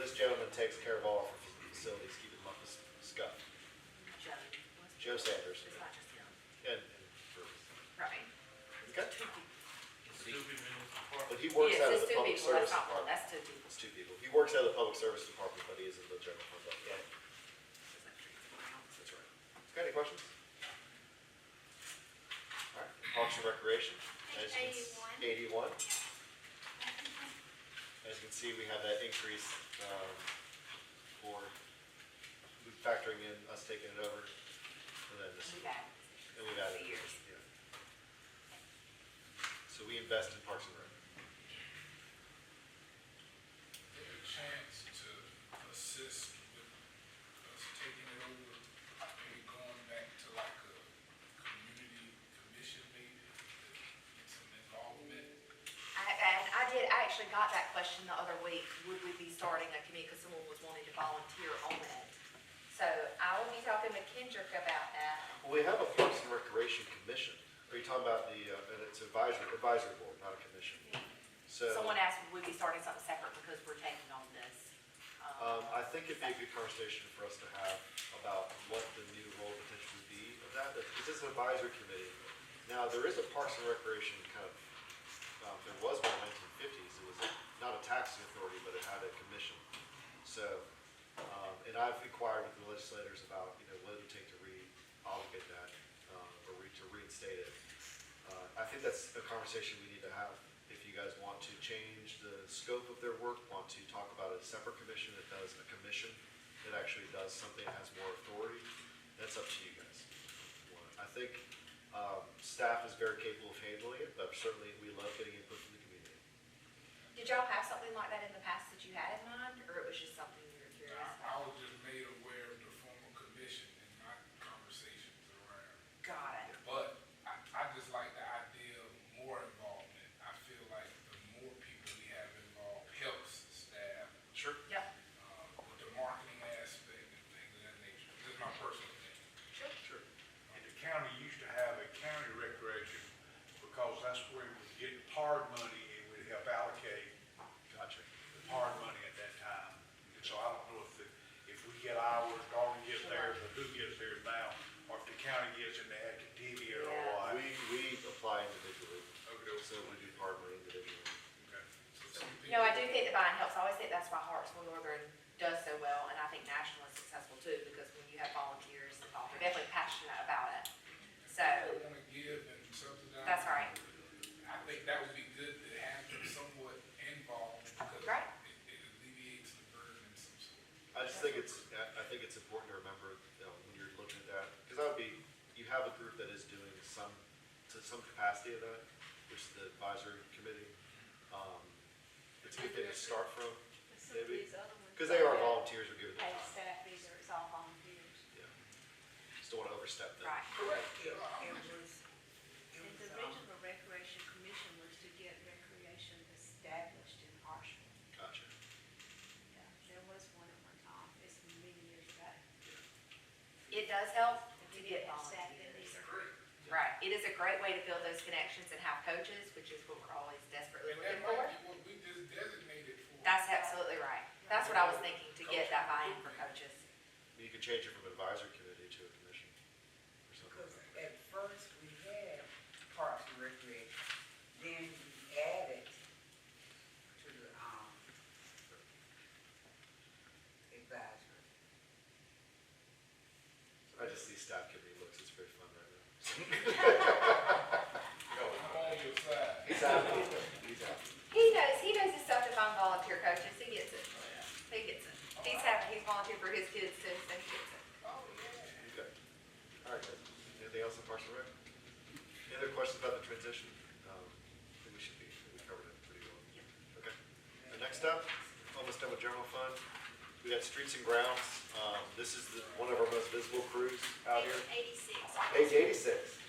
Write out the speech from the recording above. takes care of all our facilities, keeping them up with Scott, Joe. Joe Sanders. It's not just him, And, and for- right? he's got two, Two people. but he works out of Yes, it's the two public people, that's not service one, department. that's two people. It's two people. He works out of the public service department, but he is in the general fund. budget. That's right. Okay, any questions? All right, Parks and Recreation. As you can- Eighty-one. As you can see, we have that increase, um, for, we factoring in us taking it over, and then this, We got and we've added. Years. yeah. So we invest in Parks and Rec. a chance to assist with us taking it over, maybe going back to like a community commission meeting, get some involvement. I- And I did, I actually got that question the other week, would we be starting a committee, because someone was wanting to volunteer on that. So I will be talking with Kendrick about that. Well, we have a Parks and Recreation Commission. Are you talking about the, uh, and it's advisory, advisory board, not a commission? So, Someone asked, would we be starting something separate because we're taking on this? um, I think it'd be a good conversation for us to have about what the new role potential would be of that. This is an advisory committee. Now, there is a Parks and Recreation kind of, um, there was one in the nineteen fifties. It was not a taxing authority, but it had a commission. So, um, and I've inquired with the legislators about, you know, what it would take to re-obligate that, uh, or re- to reinstate it. Uh, I think that's a conversation we need to have. If you guys want to change the scope of their work, want to talk about a separate commission that does a commission that actually does something, that has more authority, that's up to you guys. I think um, staff is very capable of handling it, but certainly we love getting input from the community. Did y'all have something like that in the past that you had in mind, or it was just something you were And curious I, I about? was just made aware of the formal commission in my conversations around. Got it. But I, I just like the idea of more involvement. I feel like the more people we have involved helps staff Sure. Yep. uh, with the marketing aspect and things of that nature. This is my personal opinion. Sure. And the county used to have a county recreation because that's where we would get PARD money and would help allocate Gotcha. the PARD money at that time. And so I don't know if the, if we get ours, Darwin gets theirs, or who gets theirs now, or if the county gets it and they had to deviate or what. We, we apply individually, Okay, so we do part of it individually. okay. So some No, I people- do think the buying helps. I always think that's why Hartsville Northern does so well, and I think National is successful too, because when you have volunteers involved, they're definitely passionate about it. So, People wanna give and subsidize. that's all right. I think that would be good to have them somewhat involved because Right. it, it alleviates the burden in some sort. I just think it's, I I think it's important to remember, you know, when you're looking at that, because that would be, you have a group that is doing some, to some capacity of that, which is the advisory committee. Um, It's a good thing to start from, Some of these other ones. because they are volunteers who give it their Paid time. staff, these are, it's all volunteers. Yeah. Just don't want to overstep that. Right. Correct. Yeah, It I'm- was, um, and the original Recreation Commission was to get recreation established in Harshville. Gotcha. Yeah, There was one at one time, it's been many years ago. It does help to get They didn't have staff, they- volunteers. These are Great. Right. It is a great way to build those connections and have coaches, which is what we're always desperately And looking that might for. be what we just designated for. That's absolutely right. That's what I was thinking, to get that buy-in for coaches. You could change it from advisory committee to a commission or something Because like that. at first we had Parks and Recreation, then we added to the, um, advisory. I just see staff committee looks, it's very fun right now. I'm on your side. He's happy. He's happy. He knows, he knows his stuff to find volunteer coaches. He gets it. He gets it. He's happy, he's volunteered for his kids too, so he gets it. Oh, yeah. Okay. All right, guys. Anything else on Parks and Rec? Any other questions about the transition? Um, I think we should be, we covered it pretty well. Okay. The next up, almost done with general fund. We got streets and grounds. Um, this is the, one of our most visible crews out here. Eighty-six. Page eighty-six. Um,